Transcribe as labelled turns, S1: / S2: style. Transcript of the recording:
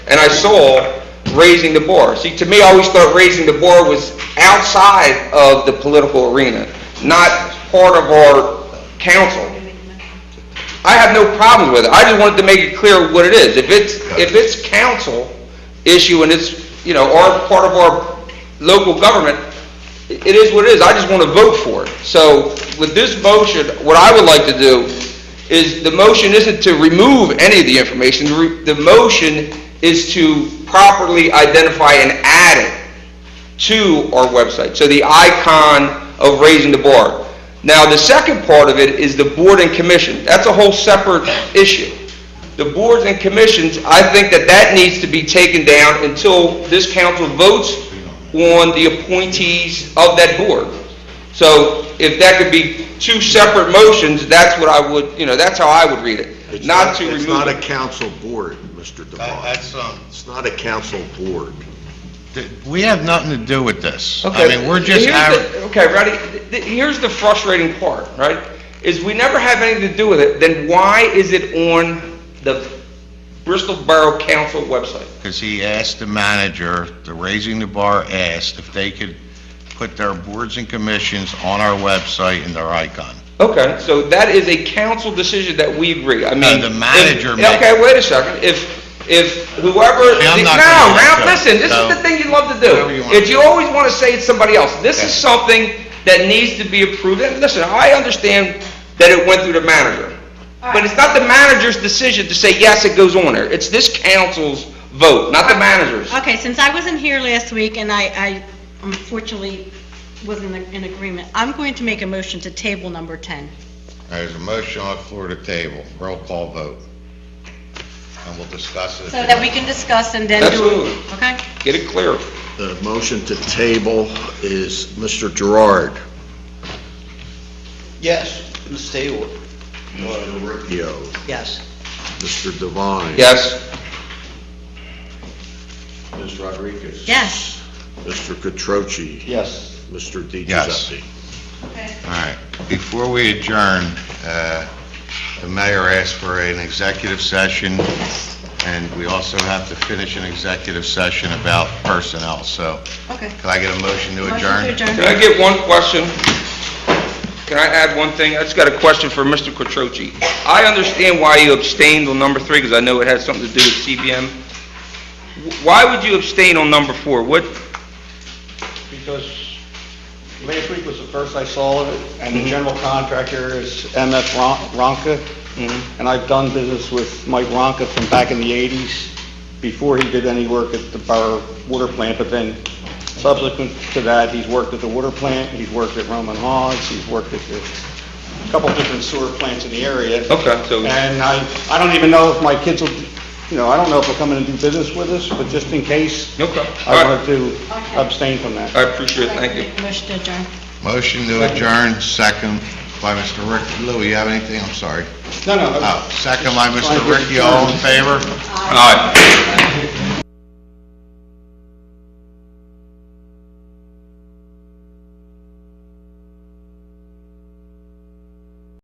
S1: and I saw raising the bar. See, to me, I always thought raising the bar was outside of the political arena, not part of our council. I have no problems with it. I just wanted to make it clear what it is. If it's, if it's council issue and it's, you know, our, part of our local government, it it is what it is. I just want to vote for it. So with this motion, what I would like to do is the motion isn't to remove any of the information, the re- the motion is to properly identify and add it to our website, so the icon of raising the bar. Now, the second part of it is the board and commission, that's a whole separate issue. The boards and commissions, I think that that needs to be taken down until this council votes on the appointees of that board. So if that could be two separate motions, that's what I would, you know, that's how I would read it,
S2: It's
S1: not to
S2: It's not
S1: remove
S2: a
S1: it. Uh,
S2: council board, Mr.
S3: That-
S2: DeBon.
S3: That's, um,
S2: It's not a council board.
S3: th- we have nothing to do with this. I
S1: Okay,
S3: mean, we're just,
S1: here's
S3: aver-
S1: the- Okay, ready, Th- th- here's the frustrating part, right, is we never have anything to do with it, then why is it on the Bristol Borough Council website?
S3: because he asked the manager, the Raising the Bar asked if they could put their boards and commissions on our website and their icon.
S1: Okay, so that is a council decision that we agree, I mean.
S3: the
S1: if-
S3: manager made-
S1: Okay, wait a second, if, if whoever.
S3: See, I'm
S1: the-
S3: not
S1: No,
S3: gonna let
S1: Ralph,
S3: go,
S1: listen, this is
S3: so-
S1: the thing you love to do.
S3: Whatever you want.
S1: If you always want to say it's somebody else, this is
S3: Yeah.
S1: something that needs to be approved, and listen, I understand that it went through the manager. But it's not the manager's decision to say, yes, it goes on there, it's this council's vote, not the manager's.
S4: Okay, since I wasn't here last week and I, I unfortunately wasn't in agreement, I'm going to make a motion to table number 10.
S3: There's a motion on the floor to table, roll call vote. And we'll discuss it.
S4: So that we can discuss and then do
S1: Absolutely,
S4: it, okay?
S1: get it clear.
S2: The motion to table is Mr. Gerard,
S5: Yes, Ms. Taylor.
S2: Mr. Ricchio,
S5: Yes.
S2: Mr. Devine.
S1: Yes,
S2: Ms. Rodriguez.
S4: Yes.
S2: Mr. Catroci.
S5: Yes.
S2: Mr. Di
S3: Yes.
S2: Giuseppe.
S3: All right, before we adjourn, uh, the mayor asked for an executive session, and we also have to finish an executive session about personnel, so
S4: Okay.
S3: can I get a motion to
S4: Motion to
S3: adjourn?
S4: adjourn.
S1: can I get one question? Can I add one thing? I just got a question for Mr. Quattrochi. I understand why you abstained on number three, because I know it had something to do with CBM. Wh- Why would you abstain on number four? What,
S5: Because last week was the first I saw of it, and the general contractor is MF Ron- Ronca,
S1: Mm-hmm.
S5: and I've done business with Mike Ronca from back in the 80s, before he did any work at the Borough Water Plant, but then subsequent to that, he's worked at the water plant, he's worked at Roman Hogs, he's worked at a couple different sewer plants in the area.
S1: okay, so,
S5: And I, I don't even know if my kids will, you know, I don't know if they'll come in and do business with us, but just in case,
S1: okay,
S5: I
S1: all right,
S5: want to abstain from that.
S1: I appreciate it, thank you.
S4: Motion to adjourn.
S3: Motion to adjourn, second by Mr. Rick, Lou, you have anything? I'm sorry.
S5: No, no. I-
S3: Oh, second by Mr.
S5: Fine, we're
S3: Ricky, all in favor?
S1: All right.